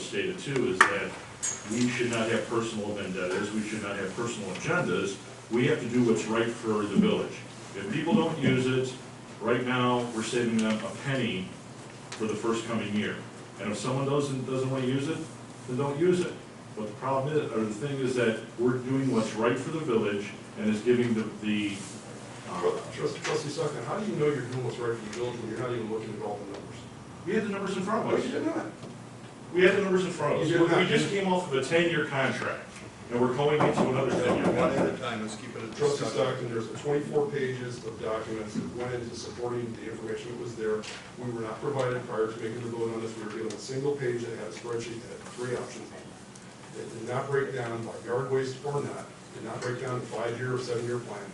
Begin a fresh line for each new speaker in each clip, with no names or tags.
stated too, is that we should not have personal vendettas, we should not have personal agendas. We have to do what's right for the village. If people don't use it, right now, we're saving them a penny for the first coming year. And if someone doesn't, doesn't want to use it, then don't use it. But the problem is, or the thing is that we're doing what's right for the village and is giving the, the, uh,
Trust- trust- Trustee Sucker, how do you know you're doing what's right for the village when you're not even looking at all the numbers?
we had the numbers in front
No,
of us.
you did not.
We had the numbers in front of us.
You did
We- We
not.
just came off of a ten-year contract, and we're going into another ten-year
One at
contract.
a time, let's keep it a
Trustee
discussion.
Stockton, there's twenty-four pages of documents that went into supporting the information that was there. We were not provided prior to making the vote on this, we were given a single page that had a spreadsheet that had three options on it. It did not break down by yard waste or not, did not break down the five-year or seven-year plan.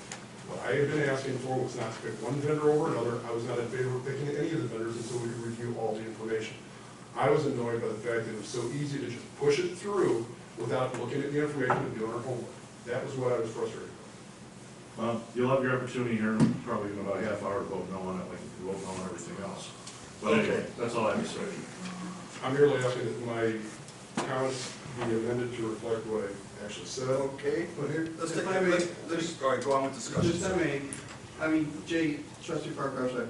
What I had been asking for was not to pick one vendor over another, I was not in favor of picking any of the vendors until we could review all the information. I was annoyed by the fact that it was so easy to just push it through without looking at the information and doing our homework. That was what I was frustrated with.
Well, you'll have your opportunity here, in probably in about a half hour, to vote no on it, like you vote no on everything else. But anyway, that's all I have to say.
I'm merely asking that my comments be amended to reflect what I actually said.
Okay,
Well, here,
let's take,
if I may-
let's, let's, all right, go on with
Just I
discussion.
mean, I mean, Jay, trustee Parker, I'm sorry,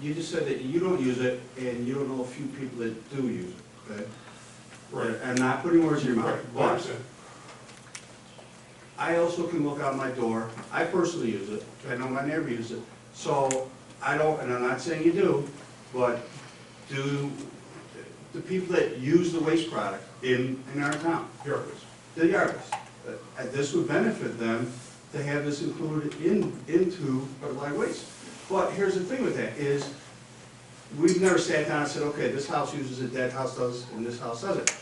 you just said that you don't use it, and you don't know a few people that do use it, okay?
Right.
I'm not putting words in your mouth,
Right, I
but
understand.
I also can look out my door, I personally use it, I know my neighbor uses it, so I don't, and I'm not saying you do, but do the people that use the waste product in, in our town,
Here it is.
the yardists, uh, and this would benefit them to have this included in, into our light waste. But here's the thing with that, is we've never sat down and said, okay, this house uses it, that house does, and this house doesn't.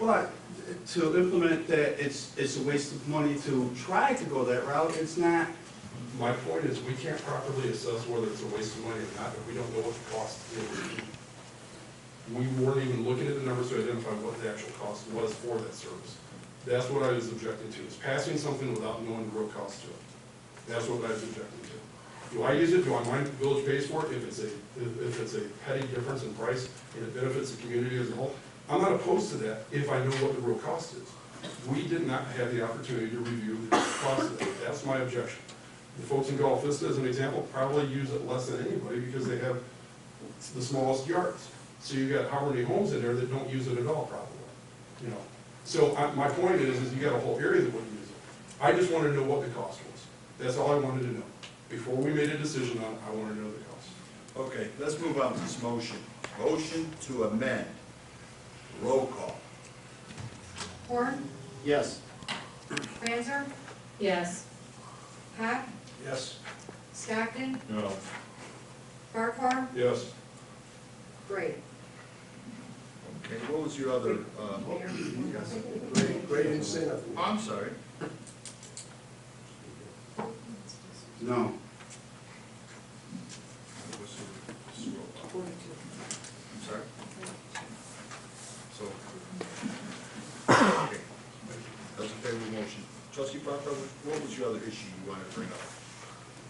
But to implement that, it's, it's a waste of money to try to go that route, it's not,
My point is, we can't properly assess whether it's a waste of money or not if we don't know what the cost is. We weren't even looking at the numbers to identify what the actual cost was for that service. That's what I was objecting to, is passing something without knowing the real cost to it. That's what I was objecting to. Do I use it, do I mind if the village pays for it, if it's a, if if it's a petty difference in price, and it benefits the community as a whole? I'm not opposed to that, if I know what the real cost is. We did not have the opportunity to review the cost of that, that's my objection. The folks in Gulf Vista, as an example, probably use it less than anybody, because they have the smallest yards. So you've got how many homes in there that don't use it at all, probably, you know? So I, my point is, is you got a whole area that wouldn't use it. I just wanted to know what the cost was. That's all I wanted to know. Before we made a decision on it, I wanted to know the cost.
Okay, let's move on to this motion. Motion to amend. Roll call.
Horn,
yes,
Franzer,
Yes,
Hack,
Yes.
Stockton,
No,
Farquhar,
Yes.
Gray.
Okay, what was your other, uh,
Yes.
great, great incentive? I'm sorry.
no.
What's your- roll call? I'm sorry? So. okay. That's a favorable motion. Trustee Barker, what was your other issue you wanted to bring up?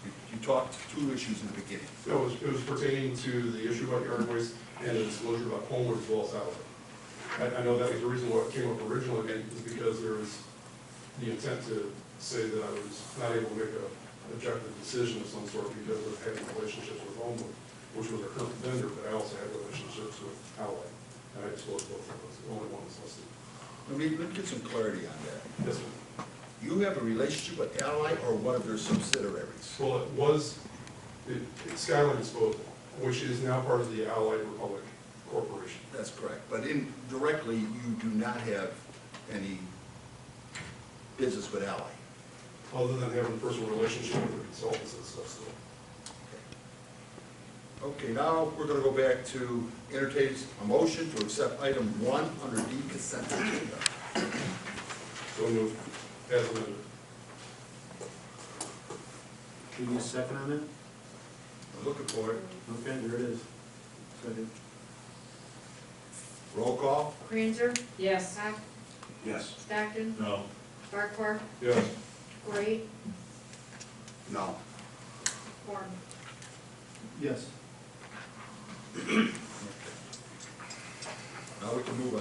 You- You talked two issues in the beginning.
No, it was, it was pertaining to the issue about yard waste and the disclosure about homewood as well as outlet. I, I know that was the reason why it came up originally, and it was because there was the intent to say that I was not able to make a objective decision of some sort because of having relationships with homewood, which was a current vendor, but I also had relationships with outlet, and I disclosed both of those, the only one that's listed.
Let me, let me get some clarity on that.
Yes, sir.
You have a relationship with Ally or one of their subsidiaries?
Well, it was, it, it's Skyline Disposal, which is now part of the Allied Republic Corporation.
That's correct, but indirectly, you do not have any business with Ally.
other than having a personal relationship with the consultants and stuff, so.
Okay, now we're gonna go back to entertain a motion to accept item one under D consent agenda.
So moved, as amended.
Give me a second on that?
I'm Looking for it.
Okay, there it is. Second.
Roll call?
Franzer,
yes,
Hack,
Yes.
Stockton,
no,
Farquhar,
Yes.
Gray,
No.
Horn.
Yes.
Now we can move on.